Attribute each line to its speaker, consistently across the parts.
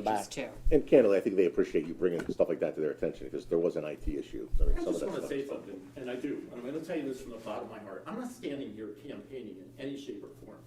Speaker 1: back.
Speaker 2: pages too.
Speaker 3: And candidly, I think they appreciate you bringing stuff like that to their attention, because there was an IT issue. I mean,
Speaker 4: I
Speaker 3: some of
Speaker 4: just
Speaker 3: that
Speaker 4: want to
Speaker 3: stuff
Speaker 4: say
Speaker 3: is public.
Speaker 4: something, and I do. I'm going to tell you this from the bottom of my heart. I'm not standing here campaigning in any shape or form.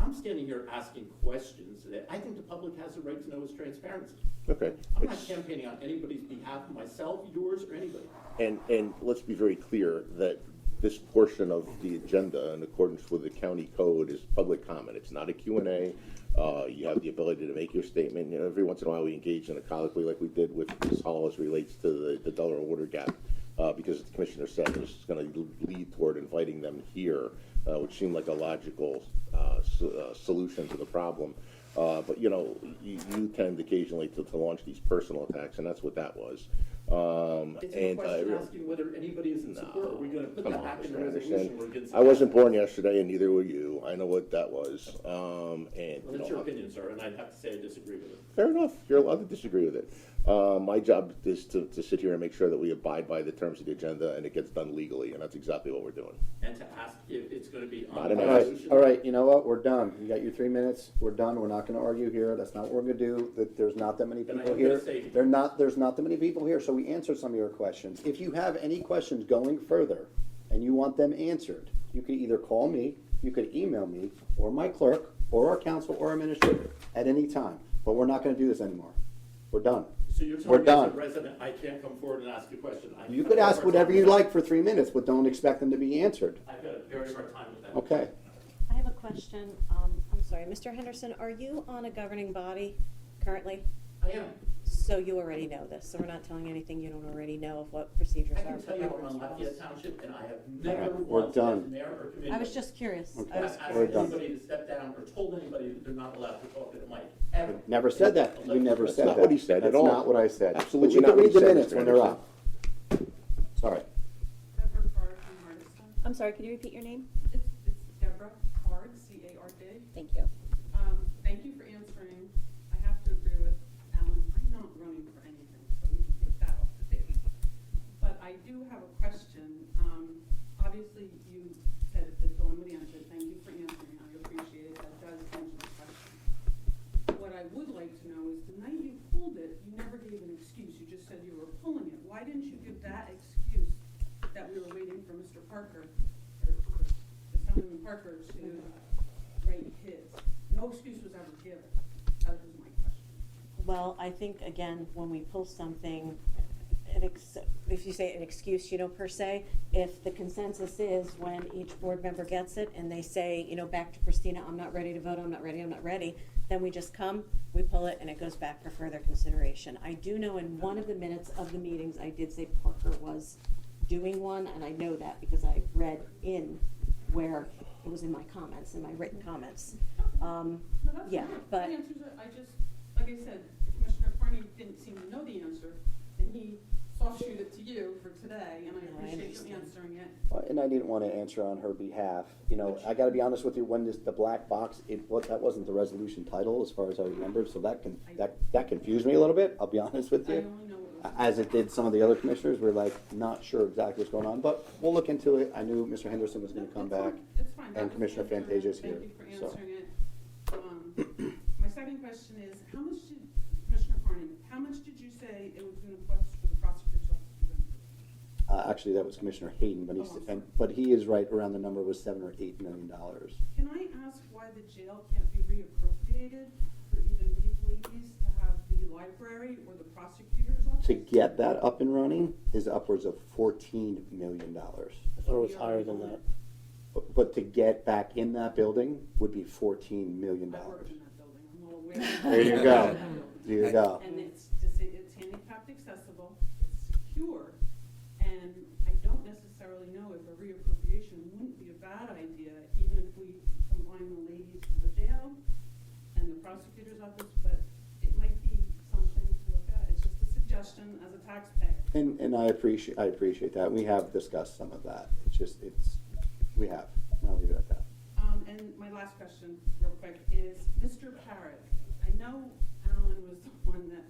Speaker 4: I'm standing here asking questions that I think the public has a right to know is transparency.
Speaker 3: Okay.
Speaker 4: I'm not campaigning on anybody's behalf, myself, yours, or anybody.
Speaker 3: And, and let's be very clear that this portion of the agenda, in accordance with the county code, is public comment. It's not a Q and A. Uh, you have the ability to make your statement. You know, every once in a while, we engage in a colloquy like we did with Ms. Hall as relates to the, the Delaware water gap. Uh, because the commissioner said this is gonna lead toward inviting them here, uh, which seemed like a logical, uh, s- uh, solution to the problem. Uh, but you know, you, you tend occasionally to, to launch these personal attacks, and that's what that was. Um,
Speaker 4: It's a
Speaker 3: and I
Speaker 4: question
Speaker 3: real-
Speaker 4: asking whether anybody is in support. Are we going to put
Speaker 3: Come
Speaker 4: that
Speaker 3: on,
Speaker 4: back in the
Speaker 3: Mr.
Speaker 4: resolution
Speaker 3: Anderson.
Speaker 4: or against?
Speaker 3: I
Speaker 4: it?
Speaker 3: wasn't born yesterday, and neither were you. I know what that was. Um, and
Speaker 4: Well,
Speaker 3: you
Speaker 4: That's
Speaker 3: know,
Speaker 4: your opinion, sir, and I'd have to say I disagree with it.
Speaker 3: fair enough. You're allowed to disagree with it. Uh, my job is to, to sit here and make sure that we abide by the terms of the agenda, and it gets done legally, and that's exactly what we're doing.
Speaker 4: And to ask if it's going to be on
Speaker 3: Not
Speaker 4: the
Speaker 3: an
Speaker 1: All right,
Speaker 4: resolution.
Speaker 1: all right, you know what, we're done, you got your three minutes, we're done, we're not gonna argue here, that's not what we're gonna do, that, there's not that many
Speaker 4: Then I
Speaker 1: people
Speaker 4: am gonna
Speaker 1: here.
Speaker 4: say-
Speaker 1: There not, there's not that many people here, so we answered some of your questions. If you have any questions going further, and you want them answered, you can either call me, you could email me, or my clerk, or our council, or our administrator, at any time, but we're not gonna do this anymore, we're done.
Speaker 4: So you're
Speaker 1: We're
Speaker 4: telling me as a
Speaker 1: done.
Speaker 4: resident, I can't come forward and ask you a question? I-
Speaker 1: You
Speaker 4: I've
Speaker 1: could
Speaker 4: got a
Speaker 1: ask
Speaker 4: hard
Speaker 1: whatever
Speaker 4: time
Speaker 1: you
Speaker 4: with that.
Speaker 1: like for three minutes, but don't expect them to be answered,
Speaker 4: I've got a very hard time with that.
Speaker 1: okay?
Speaker 5: I have a question. Um, I'm sorry, Mr. Henderson, are you on a governing body currently?
Speaker 4: I am.
Speaker 5: So you already know this, so we're not telling you anything you don't already know of what procedures
Speaker 4: I
Speaker 5: are.
Speaker 4: can
Speaker 5: for
Speaker 4: tell you I'm
Speaker 5: governor's
Speaker 4: on
Speaker 5: office.
Speaker 4: Lafayette Township, and I have
Speaker 1: All
Speaker 4: never
Speaker 1: right, we're
Speaker 4: once as
Speaker 1: done.
Speaker 4: mayor or committee.
Speaker 5: I was just curious. I
Speaker 1: Okay.
Speaker 5: was
Speaker 4: Asked
Speaker 1: We're
Speaker 5: curious.
Speaker 1: done.
Speaker 4: anybody to step down or told anybody that they're not allowed to talk at a mic, ever.
Speaker 1: Never said that. You never
Speaker 3: That's
Speaker 1: said that.
Speaker 3: not what he said at all.
Speaker 1: That's not what I said.
Speaker 3: Absolutely
Speaker 1: But
Speaker 3: not what
Speaker 1: You
Speaker 3: he
Speaker 1: can
Speaker 3: said,
Speaker 1: read the minutes
Speaker 3: Mr.
Speaker 1: when they're
Speaker 3: Anderson.
Speaker 1: up. Sorry.
Speaker 6: Deborah Card from Hardison.
Speaker 5: I'm sorry, could you repeat your name?
Speaker 6: It's, it's Deborah Card, C-A-R-D.
Speaker 5: Thank you.
Speaker 6: Um, thank you for answering. I have to agree with Alan, I'm not running for anything, so we can take that off the table. But I do have a question. Um, obviously, you said it's on with the answer. Thank you for answering. I appreciate it. That does answer the question. What I would like to know is the night you pulled it, you never gave an excuse. You just said you were pulling it. Why didn't you give that excuse that we were waiting for Mr. Parker, or or Assemblyman Parker to uh, write his? No excuse was ever given. That was my question.
Speaker 5: Well, I think, again, when we pull something, an ex, if you say an excuse, you know, per se, if the consensus is when each board member gets it and they say, you know, back to Christina, I'm not ready to vote, I'm not ready, I'm not ready, then we just come, we pull it, and it goes back for further consideration. I do know in one of the minutes of the meetings, I did say Parker was doing one, and I know that because I read in where it was in my comments, in my written comments. Um,
Speaker 6: No, that's
Speaker 5: yeah,
Speaker 6: fine.
Speaker 5: but.
Speaker 6: That answers it. I just, like I said, Commissioner Carney didn't seem to know the answer, and he soft shoot it to you for today, and
Speaker 5: No, I
Speaker 6: I appreciate
Speaker 5: understand.
Speaker 6: you answering it.
Speaker 1: Uh, And I didn't want to answer on her behalf. You know, I got to be honest with you, when this, the black box, it, what, that wasn't the resolution title as far as I remember, so that can, that, that confused me a little bit, I'll be honest with
Speaker 6: I
Speaker 1: you.
Speaker 6: only know what was.
Speaker 1: A- As it did some of the other commissioners, we're like, not sure exactly what's going on, but we'll look into it. I knew Mr. Henderson was going to come
Speaker 6: It's fine.
Speaker 1: back.
Speaker 6: It's fine. That
Speaker 1: and
Speaker 6: was
Speaker 1: Commissioner
Speaker 6: the answer.
Speaker 1: Fantasia's here,
Speaker 6: Thank you
Speaker 1: so.
Speaker 6: for answering it. Um, My second question is, how much did, Commissioner Carney, how much did you say it was going to cost for the prosecutor's office? to run?
Speaker 1: Uh, actually, that was Commissioner Hayden, but
Speaker 6: Oh.
Speaker 1: he's, and, but he is right around the number was seven or eight million dollars.
Speaker 6: Can I ask why the jail can't be reappropriated for even legalese to have the library or the prosecutor's office?
Speaker 1: To get that up and running is upwards of fourteen million dollars.
Speaker 7: I thought it was higher than that.
Speaker 1: But, but to get back in that building would be fourteen million
Speaker 6: I worked
Speaker 1: dollars.
Speaker 6: in that building, I'm well aware.
Speaker 1: There you go. There you go.
Speaker 6: And it's, dis- it's handicapped accessible, it's secure, and I don't necessarily know if a reappropriation wouldn't be a bad idea, even if we combine the ladies of the jail and the prosecutor's office, but it might be something to look at, it's just a suggestion as a taxpayer.
Speaker 1: And, and I appreciate, I appreciate that. We have discussed some of that. It's just, it's, we have. And I'll leave it at that.
Speaker 6: Um, and my last question, real quick, is Mr. Parrott, I know Alan was the one that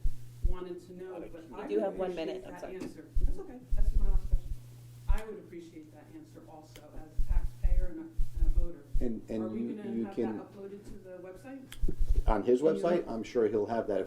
Speaker 6: wanted to know, but I
Speaker 8: do have
Speaker 6: would
Speaker 8: one minute,
Speaker 6: appreciate
Speaker 8: I'm
Speaker 6: that
Speaker 8: sorry.
Speaker 6: answer. That's okay, that's my last question. I would appreciate that answer also as a taxpayer and a, and a voter.
Speaker 1: And,
Speaker 6: Are
Speaker 1: and
Speaker 6: we
Speaker 1: you,
Speaker 6: gonna
Speaker 1: you
Speaker 6: have
Speaker 1: can,
Speaker 6: that uploaded to the website?
Speaker 1: on his
Speaker 6: Can you-
Speaker 1: website, I'm sure he'll have that. If